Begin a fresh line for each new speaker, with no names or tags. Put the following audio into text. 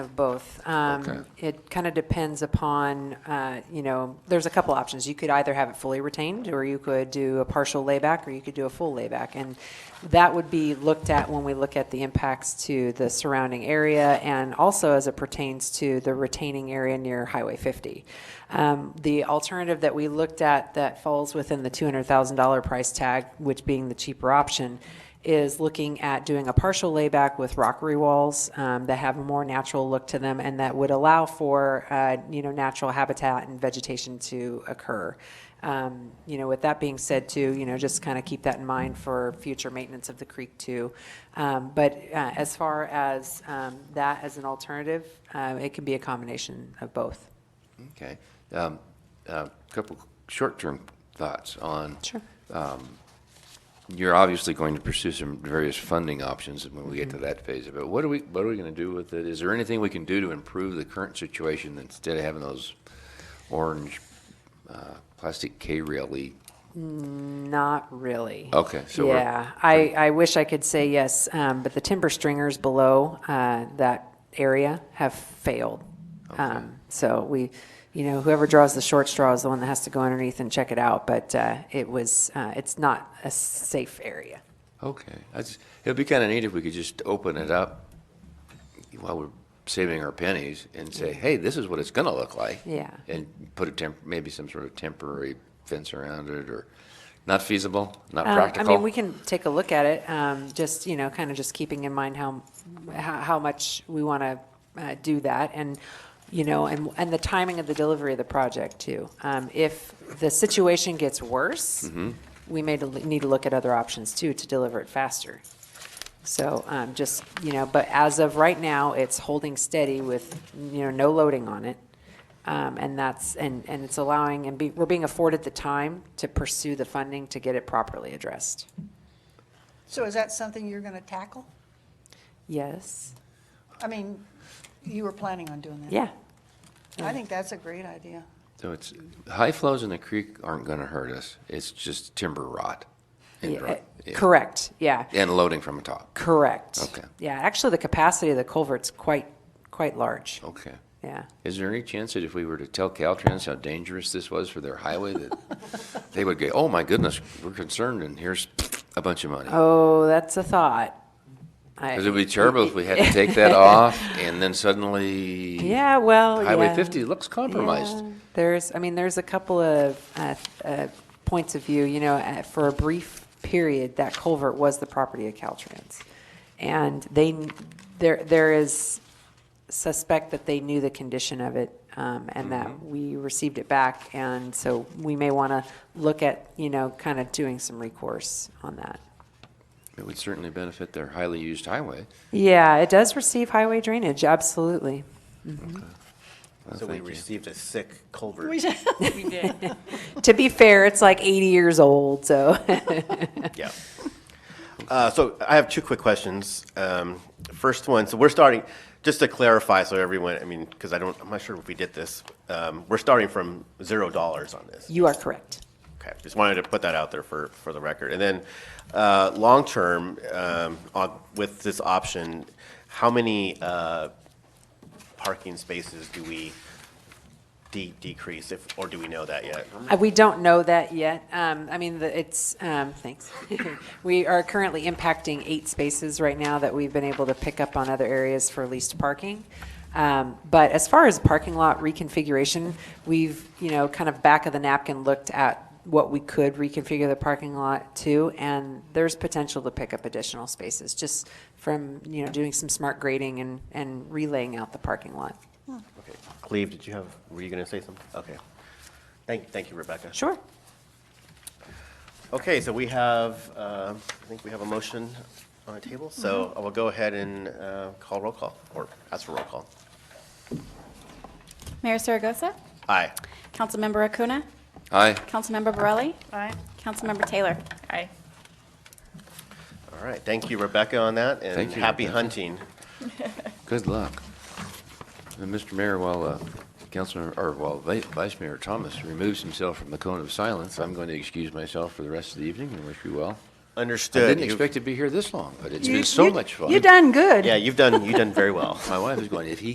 of both. Um,
Okay.
It kind of depends upon, uh, you know, there's a couple options. You could either have it fully retained, or you could do a partial layback, or you could do a full layback. And that would be looked at when we look at the impacts to the surrounding area and also as it pertains to the retaining area near Highway 50. Um, The alternative that we looked at that falls within the $200,000 price tag, which being the cheaper option, is looking at doing a partial layback with rockery walls um, that have a more natural look to them and that would allow for, uh, you know, natural habitat and vegetation to occur. Um, You know, with that being said too, you know, just kind of keep that in mind for future maintenance of the creek too. Um, But uh, as far as um, that as an alternative, uh, it can be a combination of both.
Okay. Um, A couple short-term thoughts on,
Sure.
you're obviously going to pursue some various funding options when we get to that phase of it. What are we, what are we going to do with it? Is there anything we can do to improve the current situation instead of having those orange uh, plastic K-rail-y?
Not really.
Okay, so we're-
Yeah, I, I wish I could say yes, um, but the timber stringers below, uh, that area have failed. Um, so we, you know, whoever draws the short straw is the one that has to go underneath and check it out, but, uh, it was, uh, it's not a safe area.
Okay. That's- It'd be kind of neat if we could just open it up while we're saving our pennies and say, hey, this is what it's going to look like.
Yeah.
And put a temp, maybe some sort of temporary fence around it or not feasible, not
Um,
practical.
I mean, we can take a look at it, um, just, you know, kind of just keeping in mind how, how how much we want to do that, and, you know, and, and the timing of the delivery of the project, too. Um, If the situation gets worse,
Mm-hmm.
we may del- need to look at other options, too, to deliver it faster. So um, just, you know, but as of right now, it's holding steady with, you know, no loading on it. Um, And that's, and, and it's allowing, and be- we're being afforded the time to pursue the funding to get it properly addressed.
So is that something you're going to tackle?
Yes,
I mean, you were planning on doing that.
yeah,
I think that's a great idea.
So it's, high flows in the creek aren't going to hurt us. It's just timber rot. and
Yeah,
dry-
eh,
yeah.
correct, yeah,
And loading from the top.
correct.
Okay.
Yeah, actually, the capacity of the culvert's quite, quite large,
Okay.
yeah.
Is there any chance that if we were to tell Caltrans how dangerous this was for their highway, that they would go, oh my goodness, we're concerned and here's a bunch of money?
Oh, that's a thought. I-
Because it would be terrible if we had to take that off and then suddenly
Yeah, well,
Highway
yeah.
50 looks compromised.
Yeah. There's, I mean, there's a couple of uh, uh, points of view, you know, uh, for a brief period, that culvert was the property of Caltrans. And they, there, there is suspect that they knew the condition of it um, and that we received it back. And so we may want to look at, you know, kind of doing some recourse on that.
It would certainly benefit their highly used highway.
Yeah, it does receive highway drainage, absolutely.
So we received a sick culvert.
To be fair, it's like 80 years old, so.
Yeah. Uh, So I have two quick questions. Um, First one, so we're starting, just to clarify, so everyone, I mean, because I don't, I'm not sure if we did this, um, we're starting from zero dollars on this.
You are correct.
Okay, just wanted to put that out there for, for the record. And then, uh, long-term, um, on- with this option, how many uh, parking spaces do we de- decrease, if, or do we know that yet?
Uh, We don't know that yet. Um, I mean, the- it's, um, thanks. We are currently impacting eight spaces right now that we've been able to pick up on other areas for leased parking. Um, But as far as parking lot reconfiguration, we've, you know, kind of back of the napkin looked at what we could reconfigure the parking lot to, and there's potential to pick up additional spaces, just from, you know, doing some smart grading and, and relaying out the parking lot.
Okay, Cleve, did you have, were you going to say something? Okay. Thank, thank you, Rebecca.
Sure.
Okay, so we have, um, I think we have a motion on the table, so I will go ahead and uh, call roll call, or ask for roll call.
Mayor Saragosa?
Aye.
Councilmember Acuna?
Aye.
Councilmember Borelli?
Aye.
Councilmember Taylor? Aye.
All right, thank you, Rebecca, on that, and
Thank you,
happy
Rebecca.
hunting.
Good luck. And Mr. Mayor, while uh, Councilor, or while Va- Vice Mayor Thomas removes himself from the cone of silence, I'm going to excuse myself for the rest of the evening and wish you well. I
Understood.
didn't
You've-
expect to be here this long, but it's been so much fun.
You done good.
Yeah, you've done, you've done very well.
My wife is going, if he